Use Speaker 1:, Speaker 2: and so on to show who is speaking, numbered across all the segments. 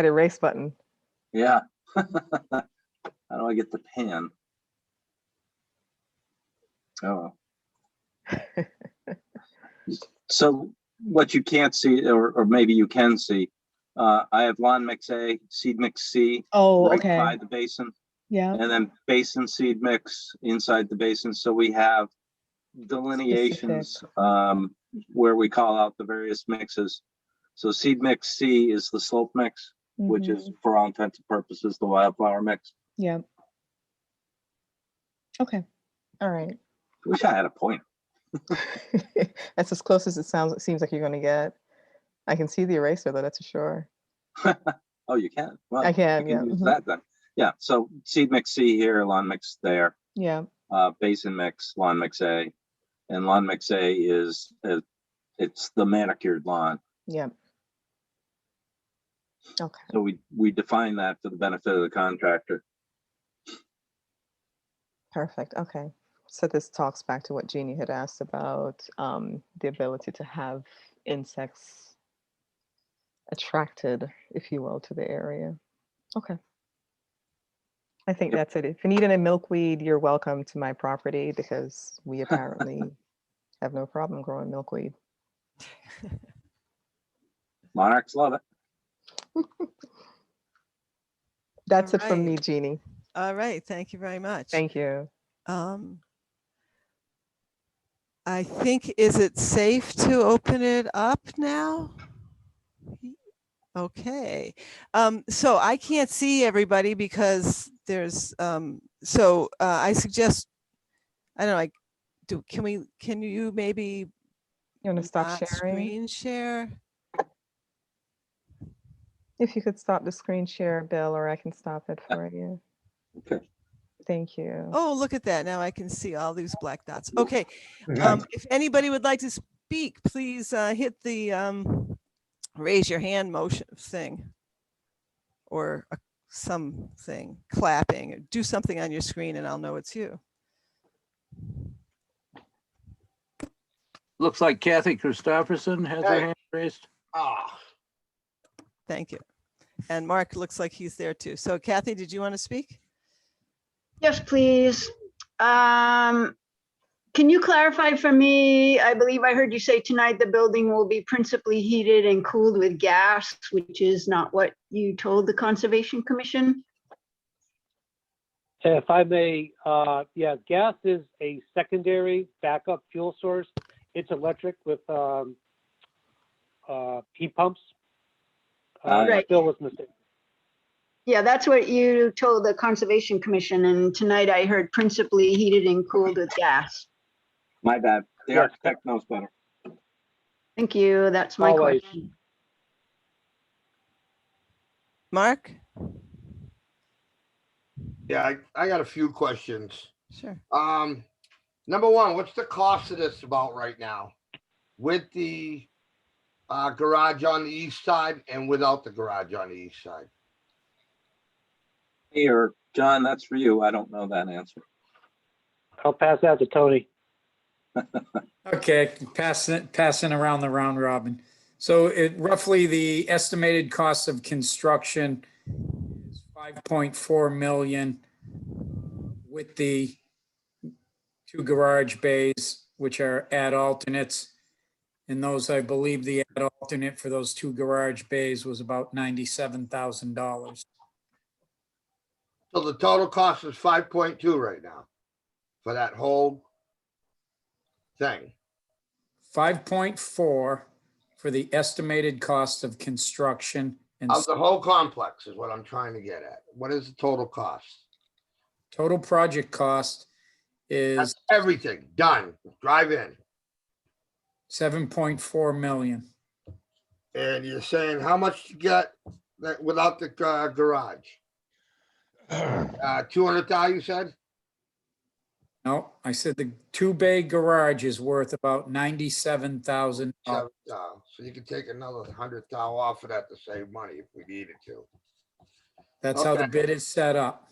Speaker 1: that erase button.
Speaker 2: Yeah. How do I get the pan? Oh. So what you can't see, or, or maybe you can see, uh, I have lawn mix A, seed mix C,
Speaker 3: Oh,
Speaker 2: right
Speaker 3: okay.
Speaker 2: by the basin,
Speaker 3: Yeah.
Speaker 2: and then basin seed mix inside the basin. So we have delineations, um, where we call out the various mixes. So seed mix C is the slope mix which
Speaker 1: mm-hmm,
Speaker 3: mhm,
Speaker 2: is for all intents and purposes, the wildflower mix.
Speaker 3: Yeah. Okay. All right.
Speaker 2: Wish I had a point.
Speaker 1: That's as close as it sounds, it seems like you're gonna get. I can see the eraser though, that's for sure.
Speaker 2: Oh, you can? Well,
Speaker 1: I
Speaker 2: you
Speaker 1: can, yeah.
Speaker 2: can use
Speaker 1: mhm,
Speaker 2: that then. Yeah, so seed mix C here, lawn mix there,
Speaker 1: Yeah,
Speaker 2: uh, basin mix, lawn mix A. And lawn mix A is, uh, it's the manicured lawn.
Speaker 1: yeah. Okay,
Speaker 2: So we, we define that for the benefit of the contractor.
Speaker 1: perfect, okay. So this talks back to what Jeannie had asked about, um, the ability to have insects attracted, if you will, to the area. Okay. I think
Speaker 2: Yep.
Speaker 1: that's it. If you need any milkweed, you're welcome to my property because we apparently have no problem growing milkweed.
Speaker 2: Monarchs love it.
Speaker 1: That's it from
Speaker 4: right.
Speaker 1: me, Jeannie.
Speaker 4: All right, thank you very much.
Speaker 1: Thank you.
Speaker 4: Um, I think, is it safe to open it up now? Okay, um, so I can't see everybody because there's, um, so, uh, I suggest, I don't know, like, do, can we, can you maybe
Speaker 1: You want to stop
Speaker 4: not
Speaker 1: sharing?
Speaker 4: Screen share?
Speaker 1: If you could stop the screen share, Bill, or I can stop it for you.
Speaker 2: Okay.
Speaker 1: Thank you.
Speaker 4: Oh, look at that. Now I can see all these black dots. Okay. Um, if anybody would like to speak, please, uh, hit the, um, raise your hand motion thing. Or a- something, clapping, do something on your screen and I'll know it's you.
Speaker 5: Looks like Kathy Christopherson has her hand raised.
Speaker 4: Thank you. And Mark looks like he's there too. So Kathy, did you want to speak?
Speaker 6: Yes, please. Um, Can you clarify for me, I believe I heard you say tonight the building will be principally heated and cooled with gas, which is not what you told the Conservation Commission?
Speaker 7: If I may, uh, yeah, gas is a secondary backup fuel source. It's electric with, um, uh, heat pumps. Uh,
Speaker 6: Right.
Speaker 7: Bill was mistaken.
Speaker 6: Yeah, that's what you told the Conservation Commission, and tonight I heard principally heated and cooled with gas.
Speaker 2: My bad. The
Speaker 7: Yeah.
Speaker 2: architect knows better.
Speaker 6: Thank you, that's my
Speaker 7: Always.
Speaker 6: question.
Speaker 4: Mark?
Speaker 8: Yeah, I, I got a few questions.
Speaker 4: Sure.
Speaker 8: Um, number one, what's the cost of this about right now? With the uh, garage on the east side and without the garage on the east side?
Speaker 2: Here, John, that's for you. I don't know that answer.
Speaker 7: I'll pass that to Tony.
Speaker 9: Okay, passing, passing around the round robin. So it roughly the estimated cost of construction is 5.4 million uh, with the two garage bays, which are add alternates. And those, I believe the add alternate for those two garage bays was about $97,000.
Speaker 8: So the total cost is five point two right now for that whole thing.
Speaker 9: 5.4 for the estimated cost of construction and
Speaker 8: Of the whole complex is what I'm trying to get at. What is the total cost?
Speaker 9: Total project cost
Speaker 8: That's
Speaker 9: is
Speaker 8: everything done, drive in.
Speaker 9: seven point four million.
Speaker 8: And you're saying how much you get that without the uh, garage? Uh, two hundred thousand, you said?
Speaker 9: No, I said the two bay garage is worth about ninety-seven thousand.
Speaker 8: Seven thou- So you could take another hundred thou off of that to save money if we needed to.
Speaker 9: That's how the
Speaker 8: Okay.
Speaker 9: bid is set up.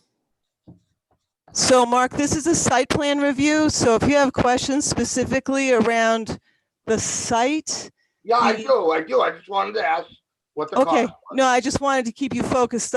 Speaker 4: So Mark, this is a site plan review. So if you have questions specifically around the site,
Speaker 8: Yeah, I
Speaker 4: The-
Speaker 8: do, I do. I just wanted to ask what the cost
Speaker 4: Okay,
Speaker 8: was.
Speaker 4: no, I just wanted to keep you focused